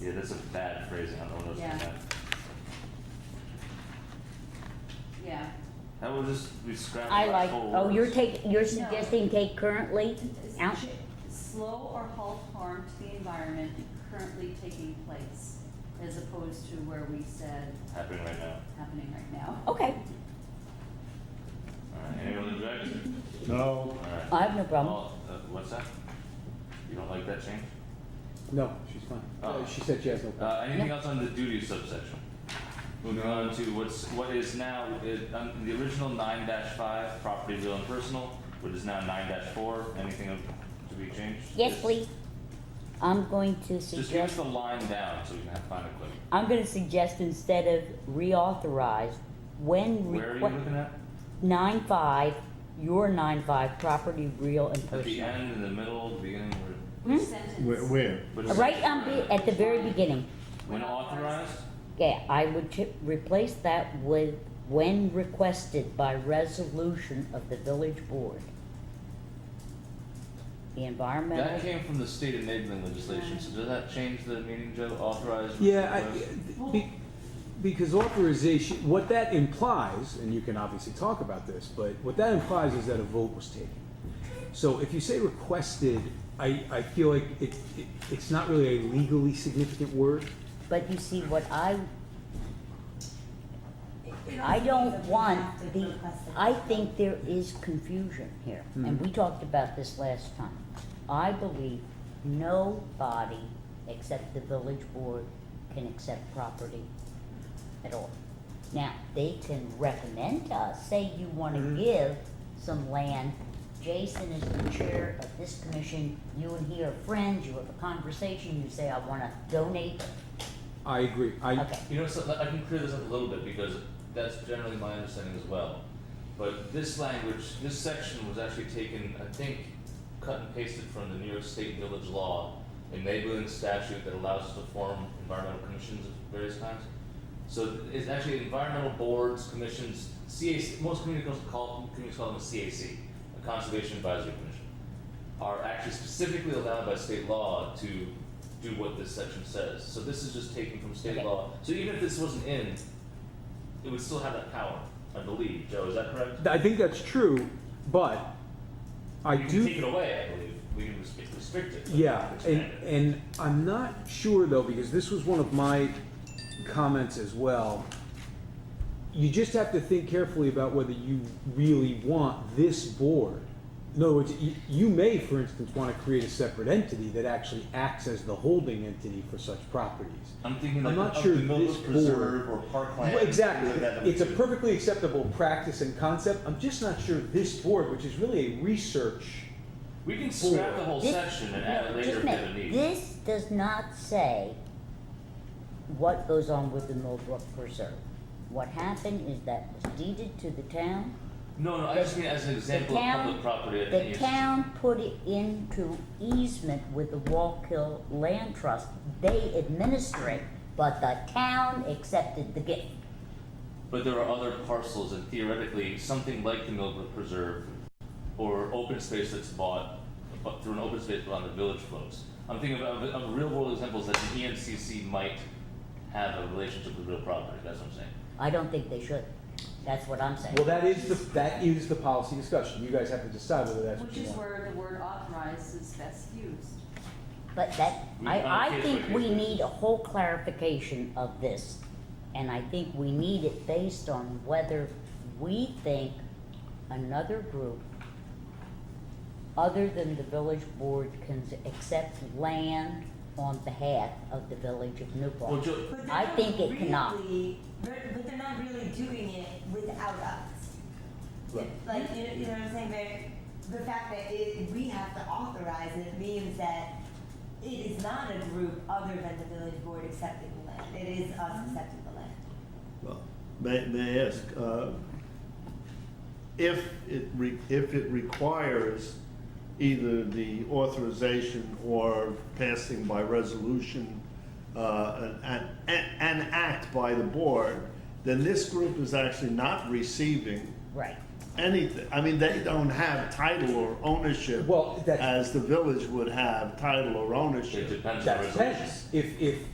Yeah, that's a bad phrasing on all those. Yeah. that. Yeah, That will just, we scrap. I the like, whole oh, you're words. taking, you're suggesting take currently Is out? ch- slow or halt harm to the environment currently taking place, as opposed to where we said Happening right now. happening right now. Okay, Alright, anyone object? No, Alright. I have no problem. All- uh, What's that? You don't like that change? No, she's fine. Oh. Uh, She said she has no problem. Uh, anything else on the duty subsection? Moving on to what's, what is now, it, um, the original nine five, property, real and personal, which is now nine four, anything of- to be changed? Yes, Just- please. I'm going to Just give us suggest, the line down so we can have, find it quick. I'm gonna suggest instead of reauthorize, when Where are you looking requ- at? nine five, your nine five, property real and At the personal. end, in the middle, beginning, Which Hmm? where, sentence? where? where? which Right section on, are you the- at the very beginning, When authorized, yeah, I would ch- replace that with when requested by resolution of the village board. The that environmental, came from the state enabling legislation, so does that change the meaning, Joe, authorized? Yeah, request? I, be- because authorization, what that implies, and you can obviously talk about this, but what that implies is that a vote was taken. So if you say requested, I, I feel like it, it, it's not really a legally significant word. but you see, what I It I also don't means that we have to want the, request it. I think there is confusion here, and we talked about this last time. I believe nobody except the village board can accept property at all. Now, they can recommend to us, say you wanna give some land, Jason is the chair of this commission, you and he are friends, you have a conversation, you say, I wanna donate, I agree, I, okay. You know, so I can clear this up a little bit because that's generally my understanding as well. But this language, this section was actually taken, I think, cut and pasted from the New York State Village Law, enabling statute that allows us to form environmental commissions of various kinds. So it's actually environmental boards, commissions, CAC, most communities call, communities call them a CAC, a Conservation Advisory Commission, are actually specifically allowed by state law to do what this section says. So this is just taken from state Okay. law. So even if this wasn't in, it would still have that power, I believe. Joe, is that correct? I think that's true, but I we do. can take it away, I believe. We can restrict, restrict it. but Yeah, and, expand it. and I'm not sure though, because this was one of my comments as well. You just have to think carefully about whether you really want this board. In other words, you, you may, for instance, want to create a separate entity that actually acts as the holding entity for such properties. I'm thinking I'm like not of sure the Mills this Preserve or Parkland. Well, Exactly. something like that that we It's a do. perfectly acceptable practice and concept. I'm just not sure this board, which is really a research. We can scrap board. the whole This- section and no, add it just later a if minute. we need. This does not say what goes on with the Millbrook Preserve. What happened is that was deeded to the town. no, no, I just mean as an example town- of public property. I think The it's- town put it into easement with the Wallkill Land Trust. They administer it, but the town accepted the gift. But there are other parcels, and theoretically, something like the Millbrook Preserve or open space that's bought but through an open space but on the village floats. I'm thinking of, of, of real world examples that the E ENCC might have a relationship with real property. That's what I'm saying. I don't think they should. That's what I'm saying. Well, that is the, that is the policy discussion. You guys have to decide whether that's what Which you is want. where the word authorized is best used. But that, We- on a I, I case think by case we basis. need a whole clarification of this. And I think we need it based on whether we think another group other than the village board can accept land on behalf of the village of New Well, Paltz. Joe, But they're I not think it cannot. really- But but they're not really doing it without us. Right. Like, you know, you know what I'm saying, but the fact that it, we have to authorize it means that it is not a group other than the village board accepting the land, it is us accepting the land. Well, may, may I ask, uh, if it re, if it requires either the authorization or passing by resolution, uh, an, an, an act by the board, then this group is actually not receiving Right. anything. I mean, they don't have title or ownership Well, that's- as the village would have title or it ownership. depends on the That resolution. depends. If, if